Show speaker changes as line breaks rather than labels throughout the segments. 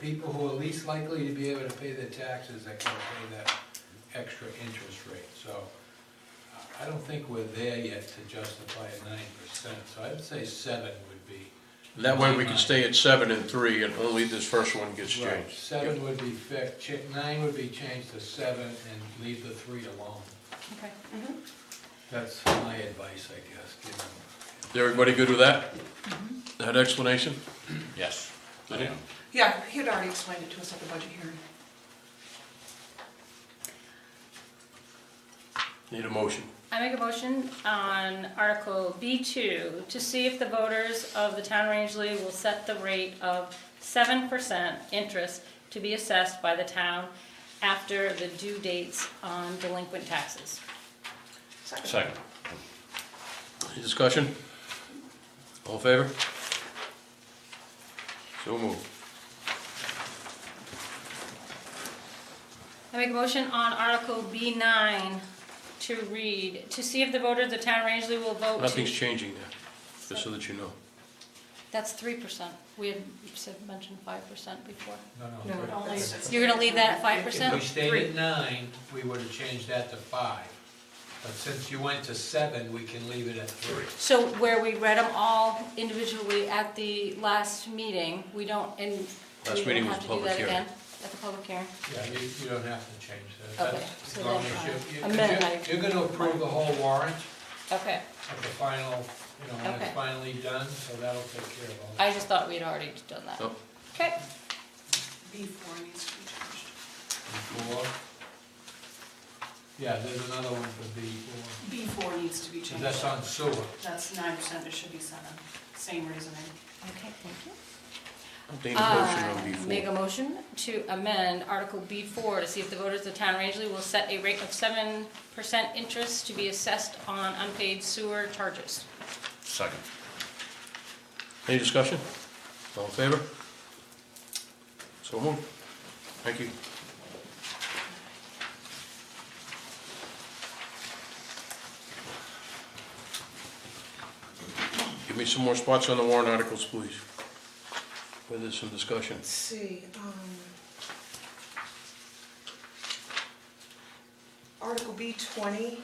people who are least likely to be able to pay their taxes that can pay that extra interest rate, so uh, I- I don't think we're there yet to justify a nine percent, so I'd say seven would be.
That way we can stay at seven and three and only this first one gets
Right,
changed.
Seven would be fixed, Ch- nine would be changed to seven and leave the three alone.
Okay.
Mm-hmm.
That's my advice, I guess, given.
Is everybody good with that? That explanation?
Yes, I
Okay.
am.
Yeah, he had already explained it to us at the budget hearing.
Need a motion?
I make a motion on Article B2 to see if the voters of the town of Rangeley will set the rate of 7% interest to be assessed by the town after the due dates on delinquent taxes.
Second.
Any discussion? All in favor? So moved.
I make a motion on Article B9 to read, to see if the voters of the town of Rangeley will vote to...
Nothing's changing there, just so that you know.
That's 3%. We had said, mentioned 5% before.
No,
No,
but-
only six.
You're gonna leave that at 5%?
If we stayed at nine, we would have changed that to five. But since you went to seven, we can leave it at three.
So where we read them all individually at the last meeting, we don't, and
Last
we don't
meeting was
have to do
public
that
hearing.
again at the public hearing.
Yeah, you, you don't have to change that.
Okay,
That's-
so
as long
then,
as you- you-
uh, amend
you're-
my-
You're gonna approve the whole warrant
Okay,
at the final, you know, when it's
Okay.
finally done, so that'll take care of all that.
I just thought we'd already done that.
Oh.
Okay,
B four needs to be changed.
Before. Yeah, there's another one for before.
B four needs to be changed.
That's on sewer.
That's nine percent, it should be seven, same reasoning.
okay, thank you.
Need a motion on
I
B
Make a
four.
motion to amend Article B4 to see if the voters of the town of Rangeley will set a rate of 7% interest to be assessed on unpaid sewer charges.
Second.
Any discussion? All in favor? So moved. Thank you. Give me some more spots on the warrant articles, please. Where there's some discussion.
Let's see, um. Article B twenty.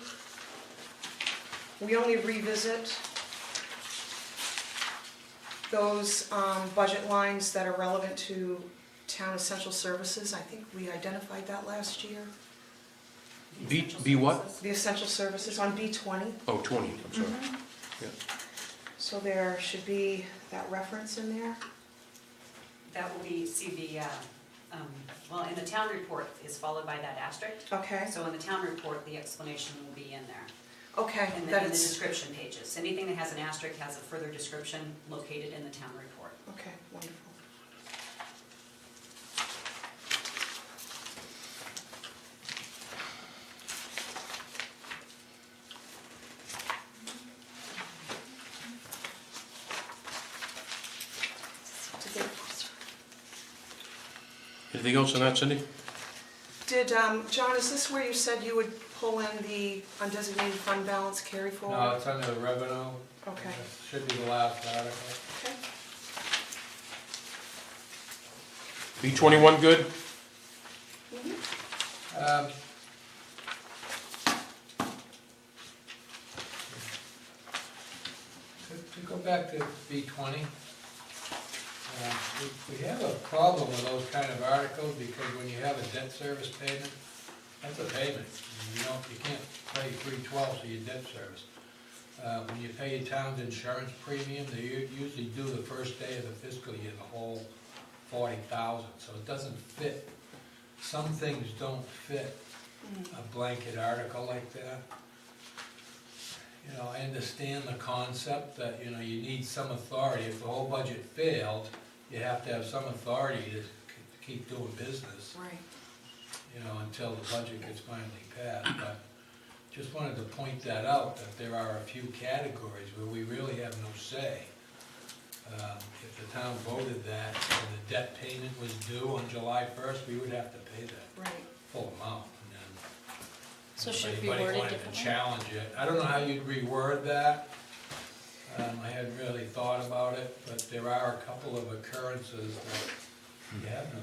We only revisit those, um, budget lines that are relevant to town essential services. I think we identified that last year.
B, B what?
The essential services on B twenty,
Oh, 20, I'm sorry.
so there should be that reference in there.
That will be, see the, uh, um, well, in the town report is followed by that asterisk.
Okay,
So in the town report, the explanation will be in there.
okay,
And then
that
in the
is,
description pages, anything that has an asterisk has a further description located in the town report.
okay, wonderful.
Anything else on that, Cindy?
Did, um, John, is this where you said you would pull in the undesignated fund balance carry forward?
No, it's under the revenue.
Okay.
Should be the last article.
Okay.
B 21, good?
Um, To to go back to B twenty, uh, we- we have a problem with those kind of articles, because when you have a debt service payment, that's a payment. And You don't, you can't pay three twelfths of your debt service. Uh, When you pay your town's insurance premium, they u- usually do the first day of the fiscal year, the whole forty thousand, so it doesn't fit some things don't fit a blanket article like that. You know, I understand the concept that, you know, you need some authority, if the whole budget failed, you have to have some authority to k- keep doing business,
Right.
you know, until the budget gets finally passed, but just wanted to point that out, that there are a few categories where we really have no say. Um, If the town voted that, and the debt payment was due on July first, we would have to pay that
Right.
full amount, and then.
So
if
should it be
anybody
worded
wanted to
differently?
Challenge it, I don't know how you'd reword that, um, I hadn't really thought about it, but there are a couple of occurrences that you have no